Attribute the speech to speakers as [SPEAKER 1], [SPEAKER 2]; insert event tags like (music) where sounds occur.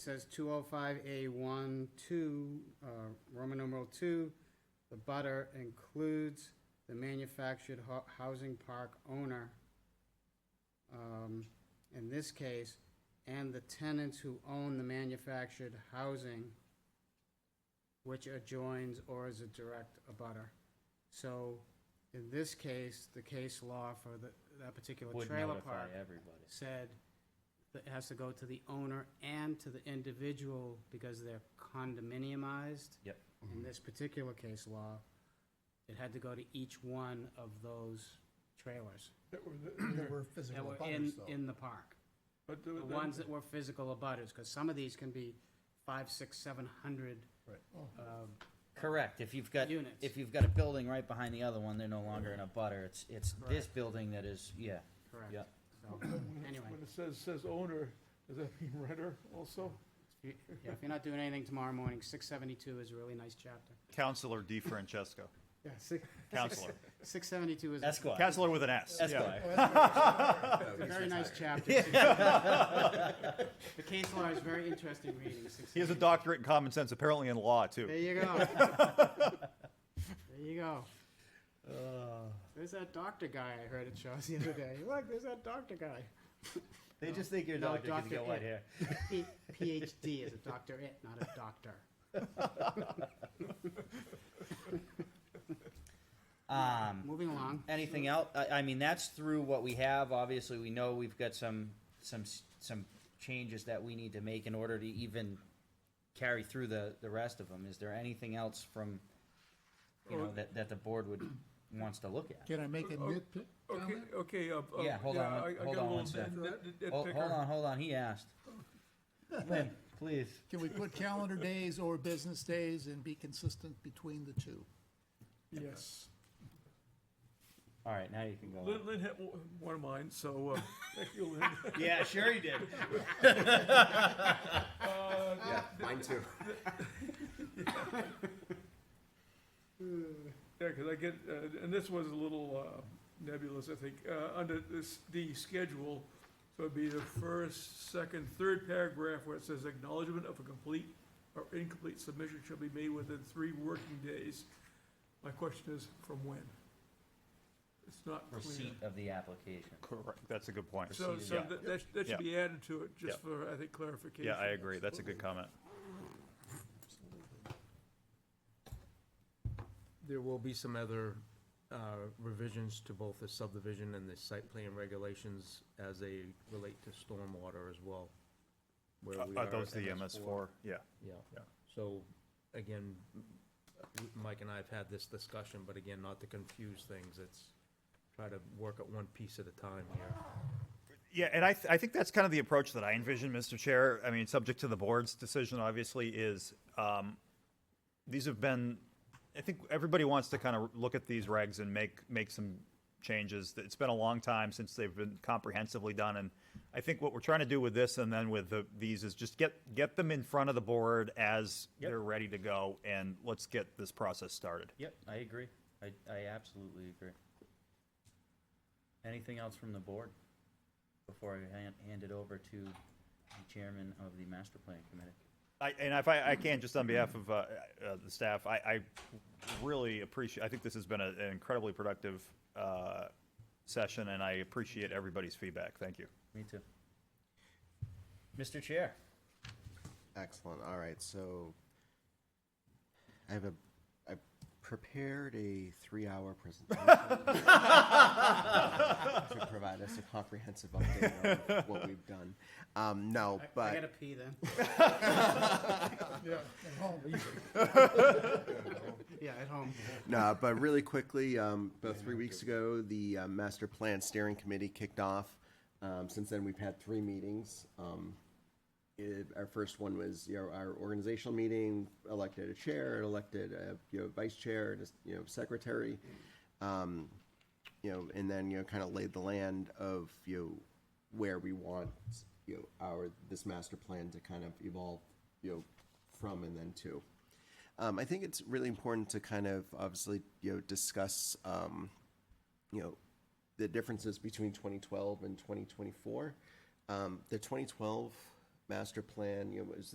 [SPEAKER 1] says two oh five A one, two, uh, Roman numeral two, the butter includes the manufactured ho- housing park owner. Um, in this case, and the tenants who own the manufactured housing which adjoins or is a direct abutter. So in this case, the case law for the, that particular
[SPEAKER 2] Would
[SPEAKER 1] trailer
[SPEAKER 2] notify
[SPEAKER 1] park
[SPEAKER 2] everybody.
[SPEAKER 1] said that it has to go to the owner and to the individual because they're condominiumized.
[SPEAKER 2] Yep.
[SPEAKER 3] Mm-hmm.
[SPEAKER 1] In this particular case law, it had to go to each one of those trailers
[SPEAKER 4] That were,
[SPEAKER 2] (clears throat)
[SPEAKER 3] There
[SPEAKER 4] the-
[SPEAKER 3] were
[SPEAKER 1] that
[SPEAKER 3] physical
[SPEAKER 1] were in,
[SPEAKER 3] butters, though.
[SPEAKER 1] in the park.
[SPEAKER 4] but
[SPEAKER 1] The ones that were physical abutters, because some of these can be five, six, seven hundred,
[SPEAKER 3] Oh,
[SPEAKER 1] um,
[SPEAKER 2] Correct, if you've got,
[SPEAKER 1] Units.
[SPEAKER 2] if you've got a building right behind the other one, they're no longer in a butter, it's, it's this
[SPEAKER 1] Correct.
[SPEAKER 2] building that is, yeah,
[SPEAKER 1] correct?
[SPEAKER 2] yeah.
[SPEAKER 1] So,
[SPEAKER 4] When it-
[SPEAKER 1] anyway.
[SPEAKER 4] when it says, says owner, does that mean renter also?
[SPEAKER 1] you- yeah, if you're not doing anything tomorrow morning, six seventy-two is a really nice chapter.
[SPEAKER 5] Counselor Di Francesco.
[SPEAKER 1] Yeah, six,
[SPEAKER 5] Counselor.
[SPEAKER 1] six seventy-two is.
[SPEAKER 2] Esquire.
[SPEAKER 5] (laughs) Counselor with an S. Yeah.
[SPEAKER 2] Esquire.
[SPEAKER 1] It's a very nice chapter.
[SPEAKER 5] (laughs)
[SPEAKER 1] The case law is very interesting reading.
[SPEAKER 5] He has a doctorate in common sense, apparently in law,
[SPEAKER 1] There
[SPEAKER 5] too.
[SPEAKER 1] you (laughs) go. There you go.
[SPEAKER 5] Uh.
[SPEAKER 1] There's that doctor guy I heard at Shaw's the other day. Look, there's that doctor guy.
[SPEAKER 2] They just think you're a
[SPEAKER 1] No,
[SPEAKER 2] doctor 'cause
[SPEAKER 1] Dr.
[SPEAKER 2] you got
[SPEAKER 1] Ed.
[SPEAKER 2] white hair.
[SPEAKER 1] P- PhD is a doctorate, not a doctor.
[SPEAKER 2] Um,
[SPEAKER 1] Moving along.
[SPEAKER 2] anything else? I, I mean, that's through what we have. Obviously, we know we've got some, some, s- some changes that we need to make in order to even carry through the, the rest of them. Is there anything else from, you know, that, that the board would, wants to look at?
[SPEAKER 3] Can I make a
[SPEAKER 4] Oh,
[SPEAKER 3] nitpick
[SPEAKER 4] Okay,
[SPEAKER 3] comment?
[SPEAKER 4] okay, uh, uh,
[SPEAKER 2] Yeah, hold on one-
[SPEAKER 4] yeah, I, I got a
[SPEAKER 2] hold on one
[SPEAKER 4] little
[SPEAKER 2] sec.
[SPEAKER 4] nit- nit- nit-
[SPEAKER 2] Oh,
[SPEAKER 4] nitpicker.
[SPEAKER 2] hold on, hold on, he asked. Lynn, please.
[SPEAKER 3] Can we put calendar days or business days and be consistent between the two?
[SPEAKER 4] Yes.
[SPEAKER 2] All right, now you can go.
[SPEAKER 4] Lynn, Lynn had o- one of mine, so, uh, (laughs) thank you, Lynn.
[SPEAKER 2] (laughs) Yeah, sure he did.
[SPEAKER 4] Uh, (laughs)
[SPEAKER 6] Yeah, mine too.
[SPEAKER 4] Yeah, because I get, uh, and this was a little uh, nebulous, I think, uh, under this, the schedule. So it'd be the first, second, third paragraph where it says acknowledgement of a complete or incomplete submission shall be made within three working days. My question is, from when? It's not clear.
[SPEAKER 2] Receipt of the application.
[SPEAKER 5] Correct. That's a good point.
[SPEAKER 4] So,
[SPEAKER 2] Proceed,
[SPEAKER 4] so
[SPEAKER 5] yeah.
[SPEAKER 4] that- that, that
[SPEAKER 5] Yeah.
[SPEAKER 4] should be added to it, just
[SPEAKER 5] Yeah.
[SPEAKER 4] for, I think, clarification.
[SPEAKER 5] Yeah, I agree. That's a good comment.
[SPEAKER 7] There will be some other uh, revisions to both the subdivision and the site plan regulations as they relate to stormwater as well. where we
[SPEAKER 5] Are Uh, those
[SPEAKER 7] at
[SPEAKER 5] the MS4? Yeah.
[SPEAKER 7] Yeah,
[SPEAKER 5] Yeah.
[SPEAKER 7] so, again, m- w- Mike and I have had this discussion, but again, not to confuse things, it's try to work at one piece at a time here.
[SPEAKER 5] Yeah, and I, th- I think that's kind of the approach that I envision, Mr. Chair. I mean, subject to the board's decision, obviously, is um, these have been. I think everybody wants to kind of look at these regs and make make some changes. It's been a long time since they've been comprehensively done, and I think what we're trying to do with this and then with the, these is just get get them in front of the board as they're ready to go, and let's get this process started.
[SPEAKER 2] Yep, I agree. I, I absolutely agree. Anything else from the board before I hand, hand it over to the chairman of the master plan committee?
[SPEAKER 5] I, and if I, I can, just on behalf of uh, uh, the staff, I, I really appreciate, I think this has been a- an incredibly productive uh, session, and I appreciate everybody's feedback. Thank you.
[SPEAKER 2] Me too. Mr. Chair,
[SPEAKER 6] Excellent. All right, so I have a, I prepared a three-hour presentation to provide us a comprehensive update on what we've done. Um, no,
[SPEAKER 1] I gotta
[SPEAKER 6] but
[SPEAKER 1] pee
[SPEAKER 5] (laughs)
[SPEAKER 1] then.
[SPEAKER 3] At
[SPEAKER 1] (laughs)
[SPEAKER 3] home,
[SPEAKER 1] Yeah, at home.
[SPEAKER 6] no, but really quickly, um, about three weeks ago, the uh, master plan steering committee kicked off. Um, since then, we've had three meetings. Um, it, our first one was you know our organizational meeting elected a chair elected a you know vice chair and a, you know secretary um, you know and then you know kind of laid the land of you know, where we want you know our this master plan to kind of evolve you know from and then to um, I think it's really important to kind of obviously you know discuss um, you know the differences between 2012 and 2024 um, the 2012 master plan you know was